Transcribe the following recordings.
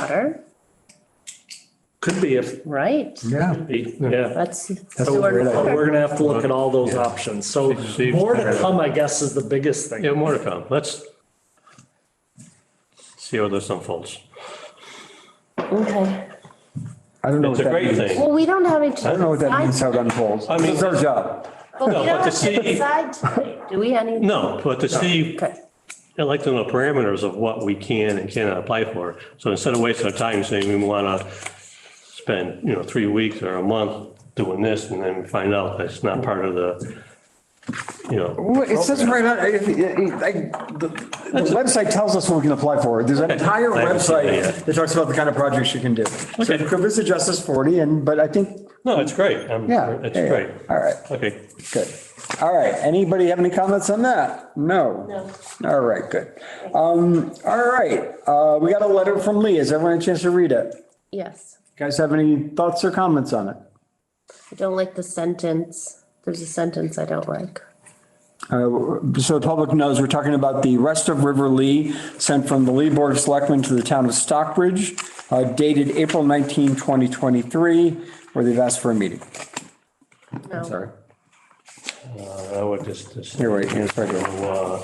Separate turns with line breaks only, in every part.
water,
Could be if,
right?
Yeah.
yeah.
That's.
So
sewer
we're
and
idea.
water.
gonna have to look at all those options. So
Steve-
more to come, I guess, is the biggest thing.
Yeah, more to come. Let's see how this unfolds.
Okay.
I don't know.
It's
what
a
that means.
great thing.
Well, we don't have any.
I don't know what that means, how it unfolds.
I mean-
It's our job.
But we
No,
don't
but to
have to
see-
decide tonight, do we, any?
No, but to see,
Okay.
I'd like to know parameters of what we can and cannot apply for. So instead of wasting our time saying we want to spend, you know, three weeks or a month doing this and then we find out that's not part of the, you know.
Well, It says right on, it- it- it- I- the the website tells us what we can apply for. There's an entire
I haven't seen that
website
yet.
that talks about the kind of projects you can do. So
Okay.
you could visit Justice 40 and, but I think,
No, it's great. I'm-
yeah.
It's
yeah, yeah.
great.
All right,
Okay.
good. All right, anybody have any comments on that? No? No. All right, good. Um, all right, uh, we got a letter from Lee. Has everyone had a chance to read it?
Yes.
Guys have any thoughts or comments on it?
I don't like the sentence. There's a sentence I don't like.
Uh, So the public knows, we're talking about the rest of River Lee, sent from the Lee Board of Selectmen to the town of Stockbridge, uh, dated April 19, 2023, where they've asked for a meeting.
No.
Sorry.
Uh, I would just. just-
Here, wait, it's right here.
So, uh,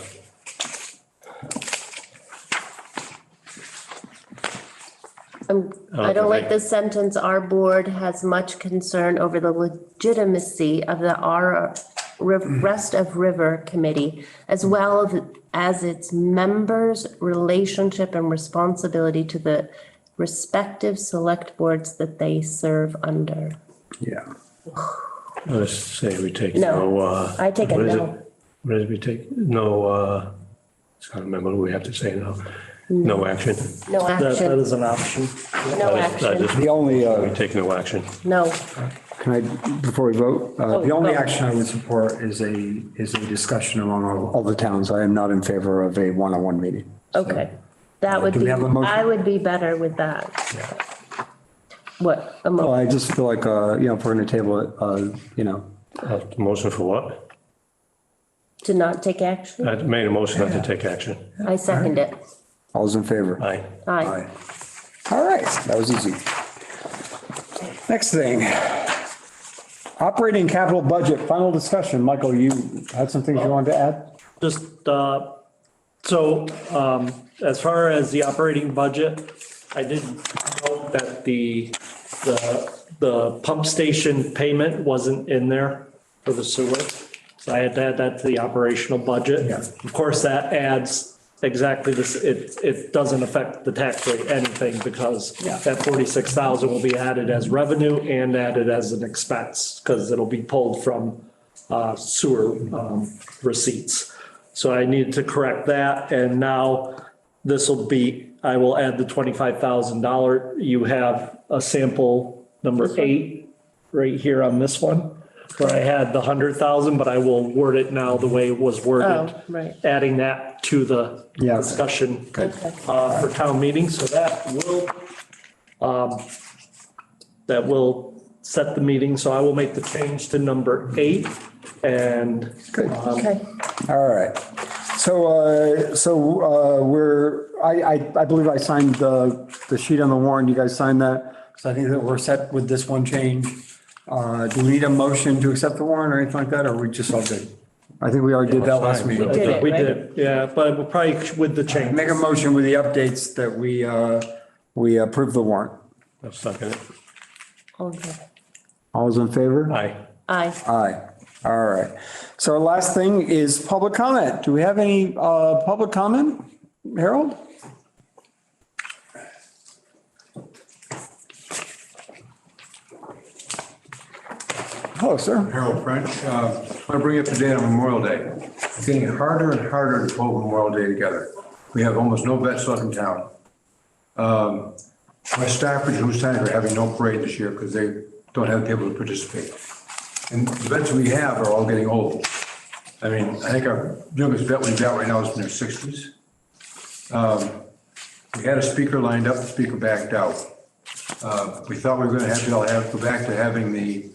I'm- Um,
Oh,
I don't like this sentence, our board has much concern over the legitimacy of the R, Riv- Rest of River Committee, as well as- as its members' relationship and responsibility to the respective select boards that they serve under.
Yeah.
Let's say we take
No,
no. uh,
I take a
what is
no.
it? What is it we take? No, uh, I can't remember what we have to say now. No action.
No
That, that
action,
is an option.
Mm. no
I just- I
action,
just-
The only,
We
uh,
take no action.
no.
can I, before we vote, uh, the
Oh,
only
vote.
action I would support is a, is a discussion among all all the towns. I am not in favor of a one-on-one meeting.
Okay, that would
Do we
be,
have a motion?
I would be better with that. What, a
Well,
mo-
I just feel like, uh, you know, if we're going to table it, uh, you know,
Uh, Motion for what?
to not take
Uh,
action?
I made a motion not to take action.
I second it.
all's in favor.
Aye.
Aye.
Aye. All right, that was easy. Next thing. Operating capital budget, final discussion. Michael, you had some things you wanted to add?
Just, uh, so, um, as far as the operating budget, I did note that the, the, the pump station payment wasn't in there for the sewer. So I had to add that to the operational budget.
Yeah.
Of course, that adds exactly this, it, it doesn't affect the tax rate anything because that forty-six thousand will be added as revenue and added as an expense because it'll be pulled from uh, sewer um, receipts. So I needed to correct that, and now this will be, I will add the twenty-five thousand dollar. You have a sample number eight right here on this one, where I had the hundred thousand, but I will word it now the way it was worded.
Oh, right.
Adding that to the
Yeah.
discussion
Okay.
uh, for town meeting, so that will, um, that will set the meeting, so I will make the change to number eight, and
Good.
Okay.
All right. So, uh, so, uh, we're, I, I, I believe I signed the, the sheet on the warrant. You guys signed that? So I think that we're set with this one change. Uh, do we need a motion to accept the warrant or anything like that? Or are we just all good? I think we already did that last
Fine.
meeting.
We did it,
we
right?
did, yeah, but we'll probably with the change.
Make a motion with the updates that we, uh, we approve the warrant.
I'll second it.
Okay.
All's in favor?
Aye.
Aye.
Aye. All right. So our last thing is public comment. Do we have any, uh, public comment? Harold? Hello, sir.
Harold French. Uh, I want to bring you up to date on Memorial Day. It's getting harder and harder to pull Memorial Day together. We have almost no vets left in town. Um, West Stafford and Houstonic are having no parade this year because they don't have people to participate. And the vets we have are all getting old. I mean, I think our youngest vet we've got right now is in their 60s. Um, We had a speaker lined up, the speaker backed out. Uh, We thought we were going to have to all have, go back to having the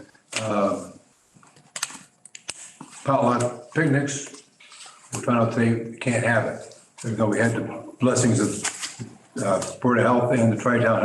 potluck picnics. We found out they can't have it, even though we had the blessings of uh, Board of Health and the Tri-Town